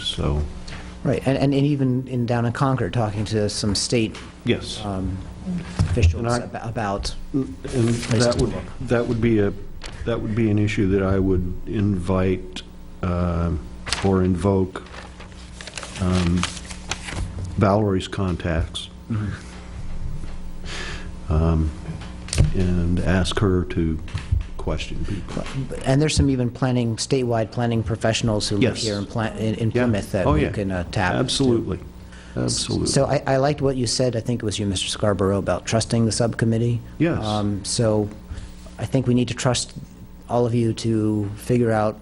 so, Right, and, and even in, down in Concord, talking to some state yes. um, officials And I- ab- about, Uh, And that to would, that would be a, that would be an issue that I would invite um, or invoke um, Valerie's contacts. Um, And ask her to question people. and there's some even planning, statewide planning professionals who live Yes. here in Pla- in in Yeah. Plymouth that Oh, we yeah. can uh, tap. Absolutely, absolutely. So I, I liked what you said, I think it was you, Mr. Scarborough, about trusting the subcommittee. Yes. Um, So I think we need to trust all of you to figure out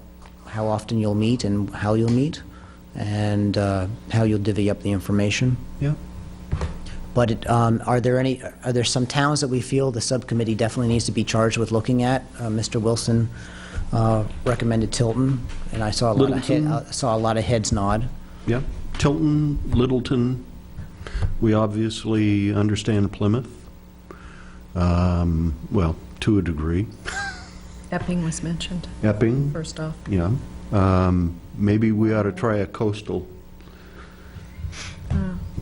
how often you'll meet and how you'll meet, and uh, how you'll divvy up the information. Yeah. But it, um, are there any, are there some towns that we feel the subcommittee definitely needs to be charged with looking at? Uh, Mr. Wilson uh, recommended Tilton, and I saw a lot of, he- Littleton? I saw a lot of heads nod. Yeah, Tilton, Littleton, we obviously understand Plymouth, Um, well, to a degree. Epping was mentioned, Epping, first off. Oh, yeah. Um, Maybe we ought to try a coastal.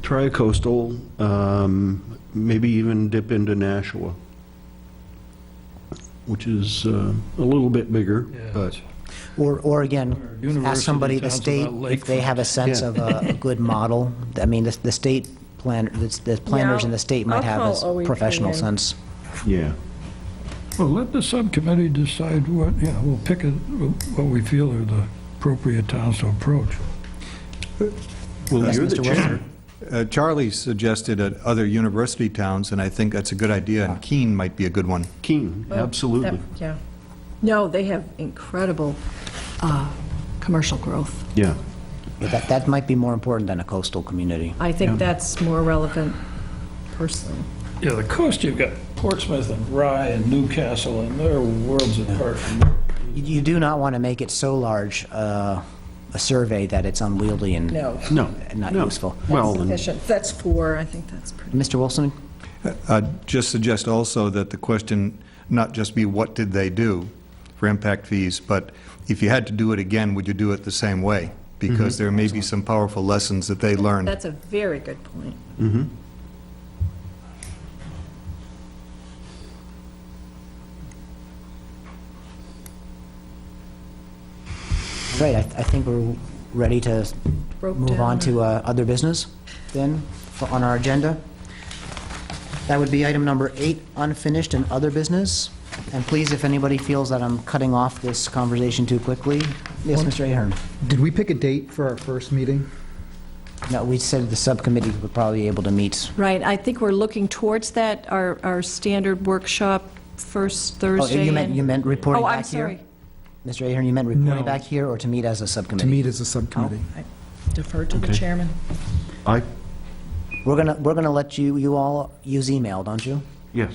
Try a coastal, um, maybe even dip into Nashua, which is uh, a little bit bigger, Yeah. but, Or, or again, ask University somebody at the towns state about if they lakefront. have a sense Yeah. of a a good model. I mean, the the state plan, the the planners in the state might Yeah, have I'll- I'll call a professional OEPA. sense. yeah. Well, let the subcommittee decide what, you know, we'll pick a- what we feel are the appropriate towns to approach. Yes, Well, Mr. Wilson? uh, Charlie suggested uh, other university towns, and I think that's a good idea, and Keene might be a good one. Keene, absolutely, That- Yeah. No, they have incredible uh, commercial growth. yeah. But That, that might be more important than a coastal community. I think that's more relevant personally. Yeah, the coast, you've got Portsmouth and Rye and Newcastle, and they're worlds apart from there. You- You do not want to make it so large, uh, a survey that it's unwieldy and No. No, not no. useful. Well, and- Sufficient. That's four, I think that's pretty. Mr. Wilson, I'd Uh, just suggest also that the question not just be what did they do for impact fees, but if you had to do it again, would you do it the same way? Because there may be some powerful lessons that they learned. That's a very good point. right, I I think we're ready to Broke move down. on to uh, other business then for- on our agenda. That would be item number eight, unfinished and other business. And please, if anybody feels that I'm cutting off this conversation too quickly, yes, Mr. Ahern. Did we pick a date for our first meeting? No, we said the subcommittee would probably be able to meet. Right, I think we're looking towards that, our, our standard workshop first Oh, Thursday. you meant, in- you meant reporting Oh, I'm back here? sorry. Mr. Ahern, you meant reporting No. back here or to meet as a subcommittee? To meet as a subcommittee? Defer to the Okay. chairman. I, We're gonna, we're gonna let you, you all use email, don't you? yes.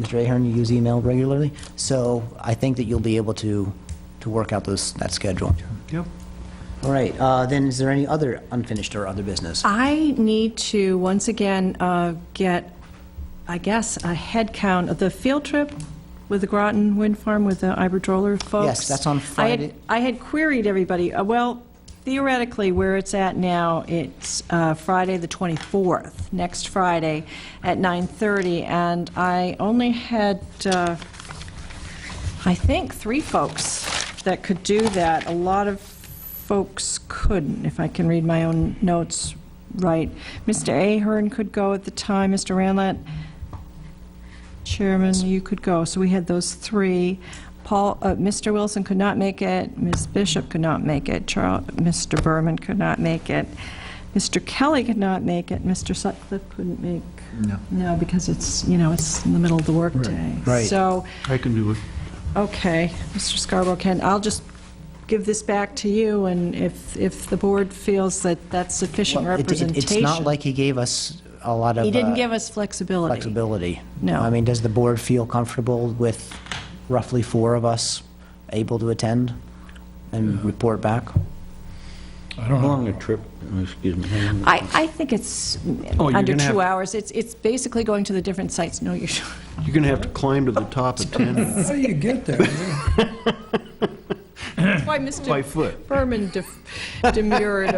Mr. Ahern, you use email regularly, so I think that you'll be able to, to work out those, that schedule. Yep. All right, uh, then is there any other unfinished or other Uh, business? I need to, once again, uh, get, I guess, a head count of the field trip with the Groton Wind Farm with the Iberdrola folks. that's on I had- Friday. I had queried everybody, Uh, well, theoretically, where it's at now, it's uh, Friday, the 24th, next Friday, at 9:30, and I only had, uh, I think, three folks that could do that. A lot of folks couldn't, if I can read my own notes right. Mr. Ahern could go at the time, Mr. Ranlat, Chairman, you could go. So we had those three. Paul, uh, Mr. Wilson could not make it, Ms. Bishop could not make it, Charles, Mr. Berman could not make it, Mr. Kelly could not make it, Mr. Sutcliffe couldn't make. No. because it's, you know, it's in the middle of the workday. Right. So, I can do it. Okay, Mr. Scarborough, Ken, I'll just give this back to you, and if, if the board feels that that's sufficient Well, it- it- representation. It's not like he gave us a lot of. He didn't uh, give us flexibility. Flexibility. No. I mean, does the board feel comfortable with roughly four of us able to attend and report back? I don't How know. long a trip, oh, excuse me, how long- I, I think it's Oh, you're under gonna have- two hours. It's, it's basically going to the different sites. No, you're, You're going to have to climb to the top of 10 How do you get there? by why Mr. foot. Berman def- demurred